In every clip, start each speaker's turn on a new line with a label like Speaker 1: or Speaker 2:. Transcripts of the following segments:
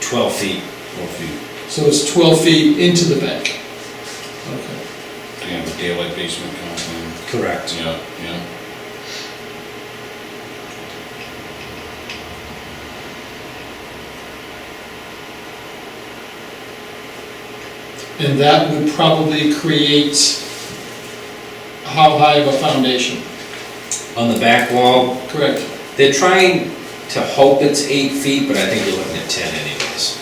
Speaker 1: 12 feet,
Speaker 2: twelve feet.
Speaker 3: So it's 12 feet into the bank. Okay.
Speaker 4: you have a daylight basement kind of thing.
Speaker 1: correct.
Speaker 4: Yeah, yeah.
Speaker 3: And that would probably create how high of a foundation,
Speaker 1: On the back wall,
Speaker 3: correct?
Speaker 1: they're trying to hope it's eight feet, but I think you're looking at 10 anyways.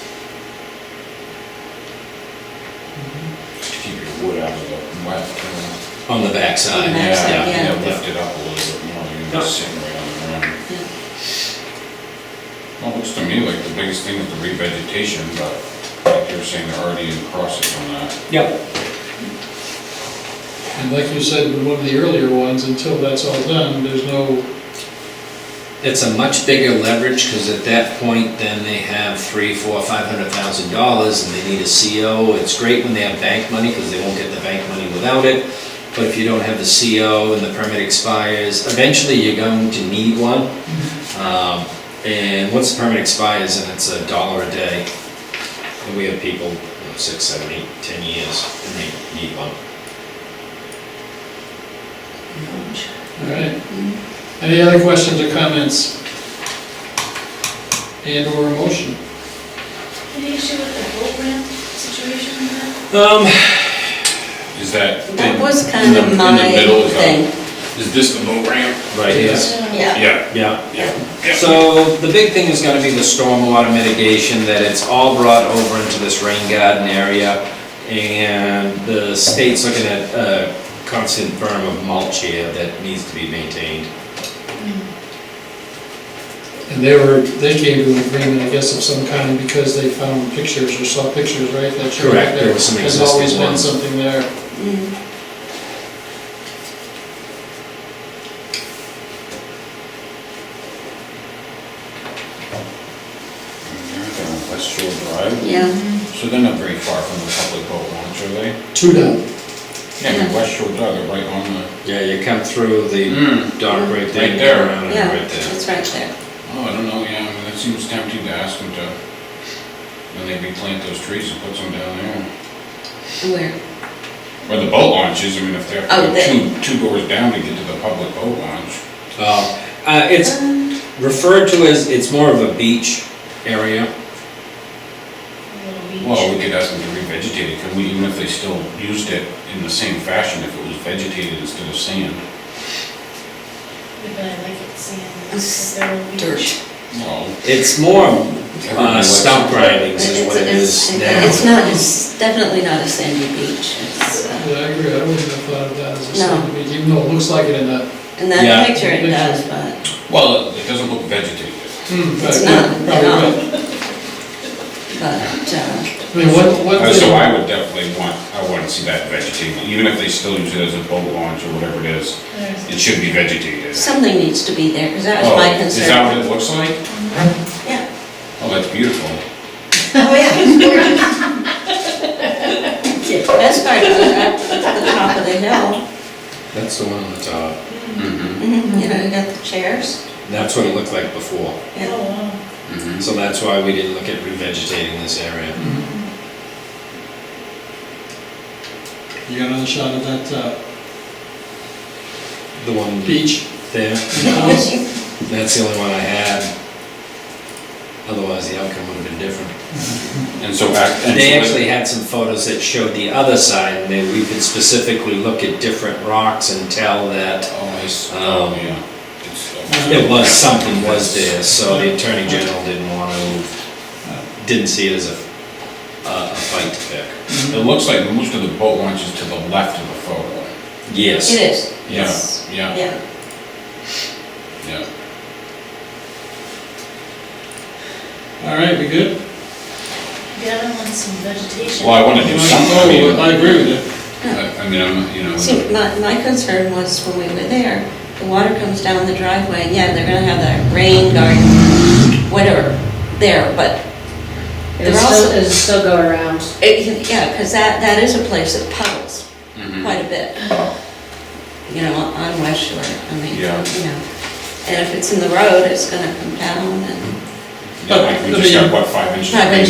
Speaker 4: To keep your wood out of the wet. you
Speaker 1: On the back
Speaker 4: know.
Speaker 1: side,
Speaker 5: On the back side,
Speaker 1: yeah.
Speaker 4: Yeah,
Speaker 5: yeah.
Speaker 4: lift it up a little bit more, you're
Speaker 1: Yep.
Speaker 4: not sitting right on the ground. Well, it looks to me like the biggest thing is the revegetation, but like you're saying, they're already in process on that.
Speaker 1: Yep.
Speaker 3: And like you said in one of the earlier ones, until that's all done, there's no,
Speaker 1: It's a much bigger leverage, because at that point, then they have three, four, five hundred thousand dollars, and they need a CO. It's great when they have bank money, because they won't get the bank money without it. But if you don't have the CO and the permit expires, eventually you're going to need one. Um, And once the permit expires, and it's a dollar a day, and we have people, you know, six, seven, eight, ten years, and they need one.
Speaker 3: all right? Any other questions or comments? And or a motion?
Speaker 5: Any issue with the boat ramp situation?
Speaker 1: Um,
Speaker 4: Is that?
Speaker 5: That was
Speaker 4: in
Speaker 5: kind
Speaker 4: the-
Speaker 5: of
Speaker 4: in the
Speaker 5: my
Speaker 4: middle is that-
Speaker 5: thing.
Speaker 4: Is this the boat ramp?
Speaker 1: right, yes.
Speaker 5: Yeah.
Speaker 4: Yeah,
Speaker 1: Yeah.
Speaker 4: yeah.
Speaker 1: So the big thing is gonna be the stormwater mitigation, that it's all brought over into this rain garden area. And the state's looking at a constant berm of mulch here that needs to be maintained.
Speaker 3: And they were, they came to an agreement, I guess, of some kind because they found pictures or saw pictures, right? that showed
Speaker 1: Correct, there
Speaker 3: that
Speaker 1: were some
Speaker 3: There's always
Speaker 1: existing
Speaker 3: been
Speaker 1: ones.
Speaker 3: something there.
Speaker 5: Mm.
Speaker 4: West Shore Drive.
Speaker 5: Yeah,
Speaker 4: So they're not very far from the public boat launch, are they?
Speaker 3: Two down.
Speaker 4: Yeah,
Speaker 5: Yeah.
Speaker 4: West Shore Drive, they're right on the.
Speaker 1: Yeah, you come through the
Speaker 4: Mm.
Speaker 1: dock Hmm. right there,
Speaker 4: Right
Speaker 1: you
Speaker 4: there.
Speaker 1: go around and
Speaker 5: yeah,
Speaker 1: right there.
Speaker 5: it's right there.
Speaker 4: Oh, I don't know, yeah, I mean, that seems tempting to ask them to, when they replant those trees and put some down there.
Speaker 5: Where?
Speaker 4: Where the boat launch is, I mean, if they have
Speaker 5: Oh,
Speaker 4: to go
Speaker 5: there.
Speaker 4: two, two doors down to get to the public boat launch.
Speaker 1: Uh, uh, it's
Speaker 5: Um,
Speaker 1: referred to as, it's more of a beach area.
Speaker 4: Well, we could ask them to revegetate it, could we, even if they still used it in the same fashion, if it was vegetated instead of sand?
Speaker 6: But I like it sand.
Speaker 5: It's
Speaker 6: There will be-
Speaker 5: dirt.
Speaker 4: Well,
Speaker 1: It's more
Speaker 4: everybody
Speaker 1: uh,
Speaker 4: likes-
Speaker 1: stump grindings is
Speaker 5: It's
Speaker 1: what it is now.
Speaker 5: it's not, it's definitely not a sandy beach. It's,
Speaker 3: Yeah,
Speaker 5: uh,
Speaker 3: I agree, I wouldn't have thought of that as a
Speaker 5: No.
Speaker 3: second beach, even though it looks like it in that.
Speaker 5: In
Speaker 1: Yeah.
Speaker 5: that picture it does, but
Speaker 4: Well, it doesn't look vegetated.
Speaker 3: It's
Speaker 5: it's not,
Speaker 3: Probably
Speaker 5: no. But,
Speaker 3: I
Speaker 5: uh,
Speaker 3: mean, what, what.
Speaker 4: Uh,
Speaker 3: they-
Speaker 4: So I would definitely want, I want to see that vegetated, even if they still use it as a boat launch or whatever it is,
Speaker 6: There's-
Speaker 4: it should be vegetated.
Speaker 5: something needs to be there, because that was
Speaker 4: Oh,
Speaker 5: my
Speaker 4: Is that
Speaker 5: concern.
Speaker 4: what it looks like?
Speaker 5: Yeah.
Speaker 4: Oh, that's beautiful.
Speaker 5: Oh, yeah, it's gorgeous. The Best part was at the top of the hill,
Speaker 1: That's the one on the top.
Speaker 4: Mm-hmm.
Speaker 5: Mhm, you know, you got the chairs.
Speaker 1: That's what it looked like before.
Speaker 5: Yeah.
Speaker 6: Oh, wow.
Speaker 1: So that's why we didn't look at revegetating this area.
Speaker 3: You got another shot of that, uh,
Speaker 1: The one
Speaker 3: beach?
Speaker 1: there,
Speaker 5: Yes, you
Speaker 1: that's the only one I had. Otherwise, the outcome would have been different.
Speaker 4: And so back. and
Speaker 1: They
Speaker 4: so
Speaker 1: actually had some photos that showed the other side, and then we could specifically look at different rocks and tell that
Speaker 4: Oh, I s-
Speaker 1: Um,
Speaker 4: oh, yeah. It's, uh,
Speaker 1: it was, something was there, so the Attorney General didn't want to, didn't see it as a, a a fight to pick.
Speaker 4: It looks like most of the boat launch is to the left of the photo.
Speaker 5: It
Speaker 1: Yes,
Speaker 5: is,
Speaker 4: Yeah,
Speaker 5: yes.
Speaker 4: yeah.
Speaker 5: Yeah,
Speaker 4: Yeah.
Speaker 3: All right, we good?
Speaker 6: Yeah, I want some vegetation.
Speaker 4: Well, I want to do something, I mean,
Speaker 3: Oh, I agree with you.
Speaker 4: I I mean, I'm, you know.
Speaker 5: see, my, my concern was when we were there, the water comes down the driveway, and yeah, they're gonna have that rain garden, whatever, there, but,
Speaker 7: It'll
Speaker 5: They're also-
Speaker 7: still, it'll still go around.
Speaker 5: it, yeah, because that, that is a place that puddles
Speaker 4: mhm.
Speaker 5: quite a bit. You know, on West Shore, I mean, you
Speaker 4: Yeah.
Speaker 5: know, and if it's in the road, it's gonna come down and.
Speaker 4: Yeah, like we just got, what, five inches?
Speaker 5: Five
Speaker 4: of rain
Speaker 5: inches